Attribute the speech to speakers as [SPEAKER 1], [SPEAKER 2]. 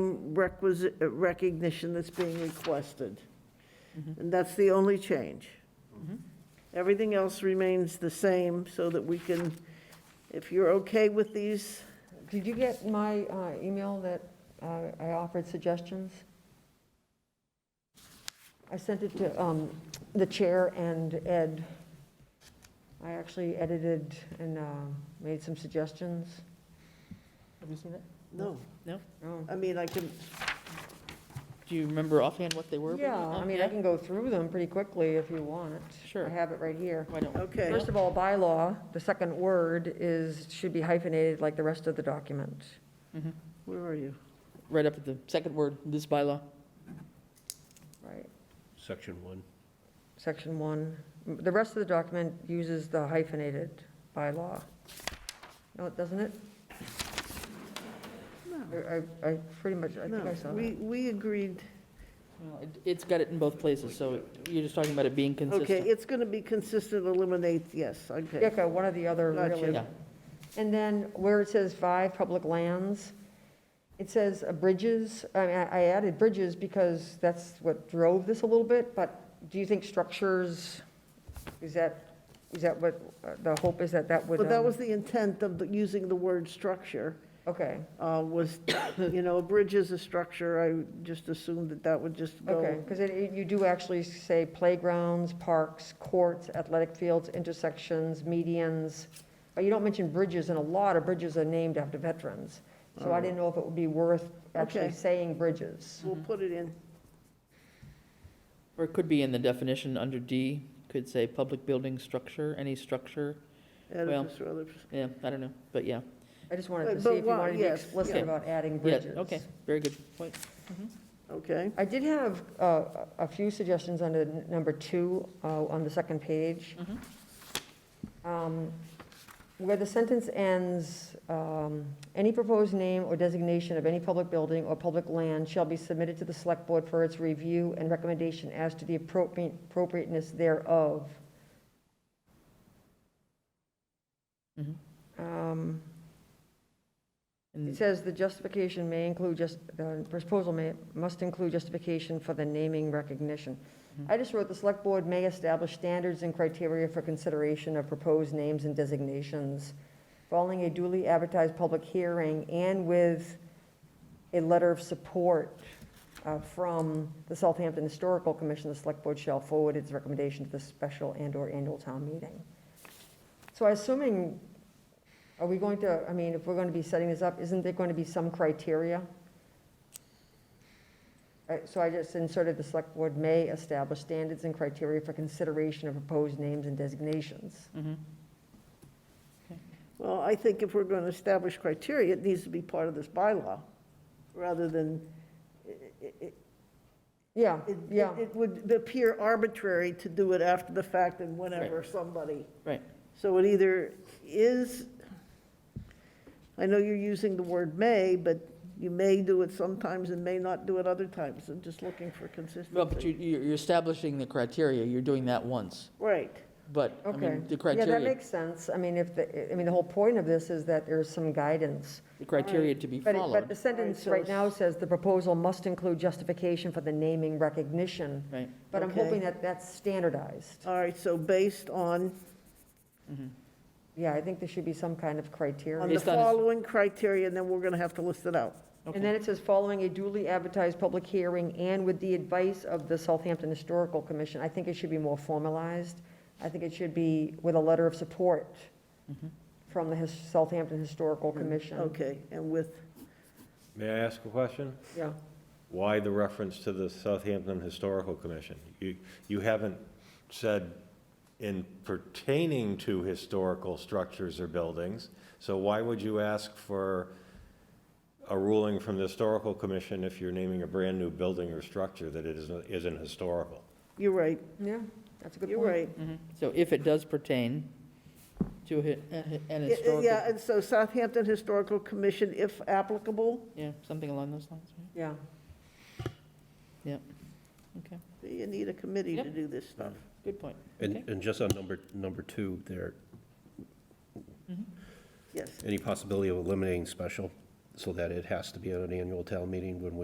[SPEAKER 1] requisite, uh, recognition that's being requested. And that's the only change. Everything else remains the same, so that we can, if you're okay with these,
[SPEAKER 2] Did you get my uh, email that uh, I offered suggestions? I sent it to um, the chair and Ed. I actually edited and uh, made some suggestions.
[SPEAKER 3] Have you seen that?
[SPEAKER 1] no,
[SPEAKER 2] Oh.
[SPEAKER 1] I mean, I can,
[SPEAKER 3] Do you remember offhand what they were?
[SPEAKER 2] Yeah, I mean, I can go through them pretty quickly if you want.
[SPEAKER 3] Sure.
[SPEAKER 2] I have it right here.
[SPEAKER 3] Why don't,
[SPEAKER 1] okay.
[SPEAKER 2] First of all, bylaw, the second word is, should be hyphenated like the rest of the document.
[SPEAKER 1] Where are you?
[SPEAKER 3] right up at the second word, this bylaw.
[SPEAKER 2] Right.
[SPEAKER 4] Section one.
[SPEAKER 2] Section one, the rest of the document uses the hyphenated bylaw. No, it doesn't it? I, I- I pretty much, I think
[SPEAKER 1] No,
[SPEAKER 2] I saw
[SPEAKER 1] we,
[SPEAKER 2] that.
[SPEAKER 1] we agreed,
[SPEAKER 3] Well, it- It's got it in both places, so you're just talking about it being
[SPEAKER 1] okay,
[SPEAKER 3] consistent.
[SPEAKER 1] it's going to be consistent, eliminate, yes, okay.
[SPEAKER 2] Dick, uh, one or the other,
[SPEAKER 1] Gotcha.
[SPEAKER 2] really.
[SPEAKER 3] Yeah.
[SPEAKER 2] And then where it says five, public lands, it says uh, bridges, I, mean, I I added bridges because that's what drove this a little bit, but do you think structures, is that, is that what, uh, the hope is that that would?
[SPEAKER 1] But that
[SPEAKER 2] um,
[SPEAKER 1] was the intent of the- using the word structure,
[SPEAKER 2] Okay,
[SPEAKER 1] uh, was, you know, a bridge is a structure, I just assumed that that would just go.
[SPEAKER 2] okay, because you do actually say playgrounds, parks, courts, athletic fields, intersections, medians, but you don't mention bridges, and a lot of bridges are named after veterans. So I didn't know if it would be worth actually
[SPEAKER 1] Oh. Okay.
[SPEAKER 2] saying bridges.
[SPEAKER 1] We'll put it in.
[SPEAKER 3] Or it could be in the definition under D, could say public building structure, any structure. Well,
[SPEAKER 1] Edifice or other-
[SPEAKER 3] Yeah, I don't know, but yeah.
[SPEAKER 2] I just wanted to
[SPEAKER 1] But-
[SPEAKER 2] see
[SPEAKER 1] but
[SPEAKER 2] if you
[SPEAKER 1] why-
[SPEAKER 2] wanted to be
[SPEAKER 1] yes,
[SPEAKER 2] explicit
[SPEAKER 3] yeah.
[SPEAKER 2] about adding
[SPEAKER 3] Yeah,
[SPEAKER 2] bridges.
[SPEAKER 3] okay, very good point.
[SPEAKER 1] Okay,
[SPEAKER 2] I did have uh, a few suggestions under n- number two, uh, on the second page. Um, Where the sentence ends, um, "Any proposed name or designation of any public building or public land shall be submitted to the Select Board for its review and recommendation as to the appropriate- appropriateness thereof."
[SPEAKER 3] Mhm.
[SPEAKER 2] Um, it
[SPEAKER 3] And
[SPEAKER 2] says the justification may include just, the proposal may, must include justification for the naming recognition. I just wrote, the select board may establish standards and criteria for consideration of proposed names and designations following a duly advertised public hearing and with a letter of support uh, from the Southampton Historical Commission, the select board shall forward its recommendation to the special and/or annual town meeting. So I'm assuming are we going to, I mean, if we're going to be setting this up, isn't there going to be some criteria? Uh, So I just inserted the select board may establish standards and criteria for consideration of proposed names and designations.
[SPEAKER 3] mm-hmm.
[SPEAKER 1] well, I think if we're going to establish criteria, it needs to be part of this bylaw, rather than, it- it-
[SPEAKER 2] Yeah,
[SPEAKER 1] it-
[SPEAKER 2] yeah,
[SPEAKER 1] it would appear arbitrary to do it after the fact and whenever somebody.
[SPEAKER 3] Right.
[SPEAKER 1] So it either is, I know you're using the word "may," but you may do it sometimes and may not do it other times. I'm just looking for
[SPEAKER 3] Well, but you,
[SPEAKER 1] consistency.
[SPEAKER 3] you- you're establishing the criteria, you're doing that once,
[SPEAKER 1] Right,
[SPEAKER 3] but, I
[SPEAKER 2] okay.
[SPEAKER 3] mean, the
[SPEAKER 2] Yeah, that
[SPEAKER 3] criteria,
[SPEAKER 2] makes sense. I mean, if, the I mean, the whole point of this is that there's some guidance.
[SPEAKER 3] the criteria to be
[SPEAKER 2] But, it- but the
[SPEAKER 3] followed,
[SPEAKER 2] sentence
[SPEAKER 1] so
[SPEAKER 2] right now says the proposal must include justification for the naming recognition.
[SPEAKER 3] right?
[SPEAKER 2] But I'm
[SPEAKER 1] Okay.
[SPEAKER 2] hoping that that's standardized.
[SPEAKER 1] all right, so based on,
[SPEAKER 2] Yeah, I think there should be some kind of criteria.
[SPEAKER 1] on the
[SPEAKER 3] Based on his-
[SPEAKER 1] following criteria, and then we're going to have to list it out.
[SPEAKER 3] Okay.
[SPEAKER 2] And then it says, following a duly advertised public hearing and with the advice of the Southampton Historical Commission. I think it should be more formalized. I think it should be with a letter of support from the His- Southampton Historical Commission.
[SPEAKER 1] Mm-hmm. Okay, and with,
[SPEAKER 4] May I ask a question?
[SPEAKER 2] Yeah.
[SPEAKER 4] Why the reference to the Southampton Historical Commission? You, you haven't said in pertaining to historical structures or buildings, so why would you ask for a ruling from the Historical Commission if you're naming a brand-new building or structure that it isn't, isn't historical?
[SPEAKER 1] you're right,
[SPEAKER 2] Yeah, that's a good point.
[SPEAKER 1] you're right.
[SPEAKER 3] Mhm. So if it does pertain to hi- a hi- an
[SPEAKER 1] Yeah, Yeah,
[SPEAKER 3] historical,
[SPEAKER 1] and so Southampton Historical Commission, if applicable,
[SPEAKER 3] yeah, something along those lines, right?
[SPEAKER 2] Yeah.
[SPEAKER 3] Okay,
[SPEAKER 1] you need a committee to
[SPEAKER 3] Yep.
[SPEAKER 1] do this stuff.
[SPEAKER 3] good point.
[SPEAKER 5] And,
[SPEAKER 3] Okay.
[SPEAKER 5] and just on number, number two, there,
[SPEAKER 1] Yes,
[SPEAKER 5] any possibility of eliminating special, so that it has to be at an annual town meeting when we